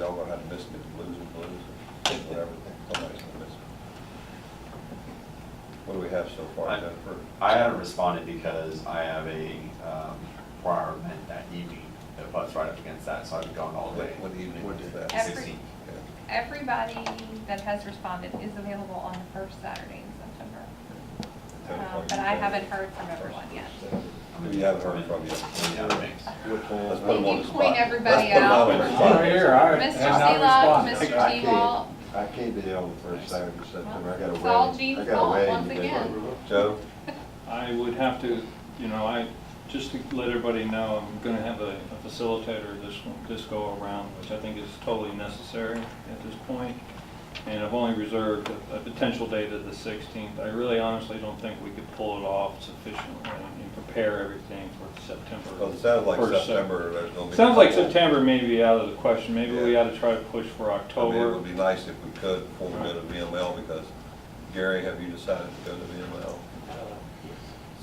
gonna miss it, blues and blues, whatever, somebody's gonna miss it. What do we have so far, I- Jennifer? I haven't responded because I have a um, prior event that evening that butts right up against that, so I've gone all What day. what evening was that? Every- Sixteen. Yeah. Everybody that has responded is available on the first Saturday in September. Ten Um, o'clock. But I haven't heard from everyone yet. We haven't heard from you. Yeah, thanks. Let's put them on the Did you spot. point everybody Let's put them out? on the spot. Over here, I Mr. have not Seelock, responded. Mr. I can't. T-Wall, I can't be on the first Saturday of September, I got a wedding. It's all Gene's I got a fault wedding once to do. again. Joe, I would have to, you know, I, just to let everybody know, I'm gonna have a a facilitator this, this go around, which I think is totally necessary at this point. And I've only reserved a- a potential date of the 16th. I really honestly don't think we could pull it off sufficiently and prepare everything for September. well, it sounded like first Sep- September, there's gonna be. a Sounds like couple. September may be out of the question. Maybe we Yeah. ought to try to push for I mean, it October. would be nice if we could form it in VML, because Gary, have you decided to go to VML?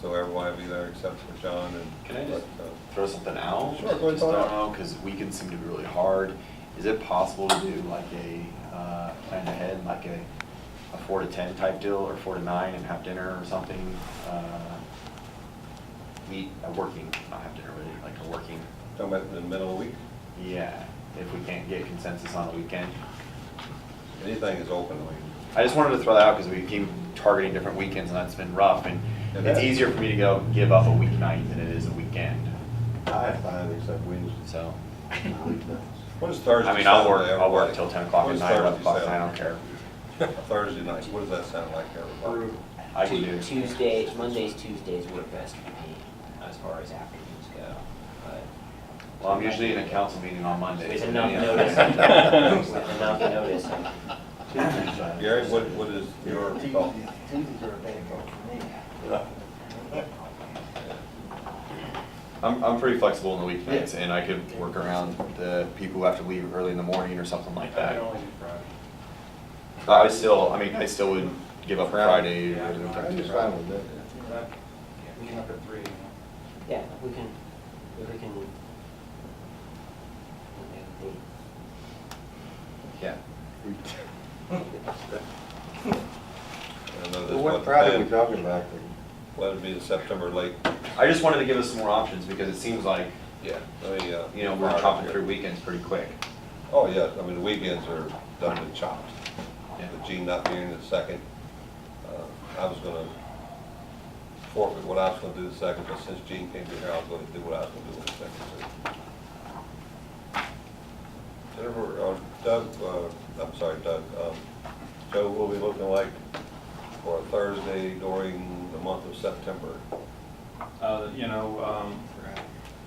So everyone will be there except for John and. Can I just but, uh, throw something out? Sure, go ahead, Just throw it don't out. know, because weekends seem to be really hard. Is it possible to do like a, uh, plan ahead, like a, a four to ten type deal, or four to nine and have dinner or something? Uh, Meet, a working, not have dinner, but like a working, Talking about in the middle of the week, yeah, if we can't get consensus on the weekend. anything is open, I mean. I just wanted to throw that out because we keep targeting different weekends and that's been rough and It it's has. easier for me to go give up a weeknight than it is a weekend, I have time except Wednesday. so. What is Thursday? I mean, I'll work, Saturday, I'll work everybody? till ten o'clock What at is night, eleven Thursday, o'clock, at night, I don't Saturday? care. Thursday night, what does that sound like, everybody? I can do. Tuesday, Mondays, Tuesdays work best for me as far as afternoons go, but. Well, I'm usually in a council meeting on Monday. With enough Yeah. notice. With enough notice. Gary, what, what is your thought? Tuesdays are a bad day I'm, I'm pretty flexible on the weekends and I could work around the people who have to leave early in the morning or something like that. But I still, I mean, I still would give up Friday or. for me. I'm just fine with that. We can up at three. Yeah, we can, if we can. we can Yeah. I know this Well, wasn't What Friday are we planned. talking about? Well, it'd be the September late, I just wanted to give us some more options because it seems like, yeah, let me, uh. you know, we're chopping through weekends pretty quick. Oh, yeah, I mean, the weekends are done and chopped. Yeah. With Gene not being here the second, uh, I was gonna forfeit what I was gonna do the second, but since Gene can't be here, I was gonna do what I was gonna do on the second. too. Jennifer, uh, Doug, uh, I'm sorry, Doug, um, Joe, what will be looking like for a Thursday during the month of September? Uh, You know, um,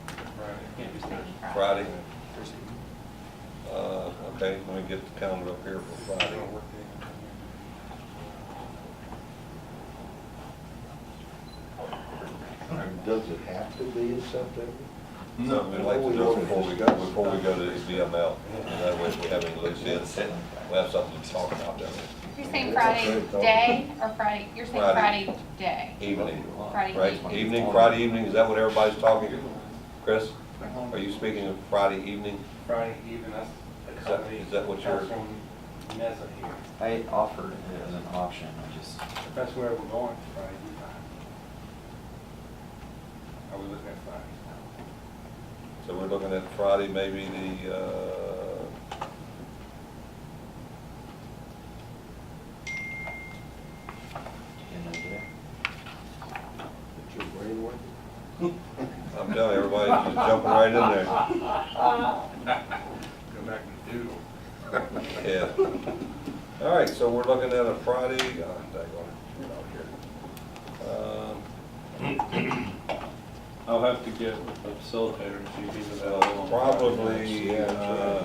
Friday. Friday? Uh, okay, let me get the calendar up here for Friday. Does it have to be in September? No, we'd like to do it before we go, before we go to the VML. And That way, if we have any loose ends, we have something to talk about down You're saying Friday day or Friday, you're saying Friday. Friday day? there. Evening, Friday right? evening. Evening, Friday evening, is that what everybody's talking? Chris, are you speaking of Friday evening? Friday evening, that's Is the that- company. is that what you're- Councilman Mesa here. I offered it as an option, I just. If that's where we're going Friday, you fine. Are we looking at Friday? So we're looking at Friday, maybe the, uh, Is your brain working? I'm telling you, everybody's just jumping right in there. Go back to doodle. Yeah. All right, so we're looking at a Friday, oh, dang on, I'll have to get a facilitator to see if he's here. available. Um, on Probably, uh,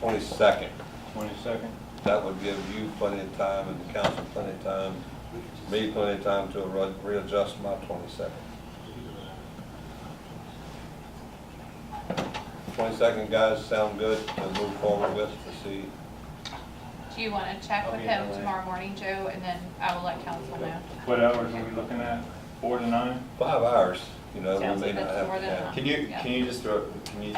twenty-second. Twenty-second? That would give you plenty of time and the council plenty of time, me plenty of time to re- readjust my twenty-second. Twenty-second, guys, sound good to move forward with to see? Do you want to check with him tomorrow morning, Joe, and then I will let council know? What hours are we looking at? Four to nine? Five hours, you know, we Sounds may like not that's have. more than yeah. enough. Can you, can you just throw, can you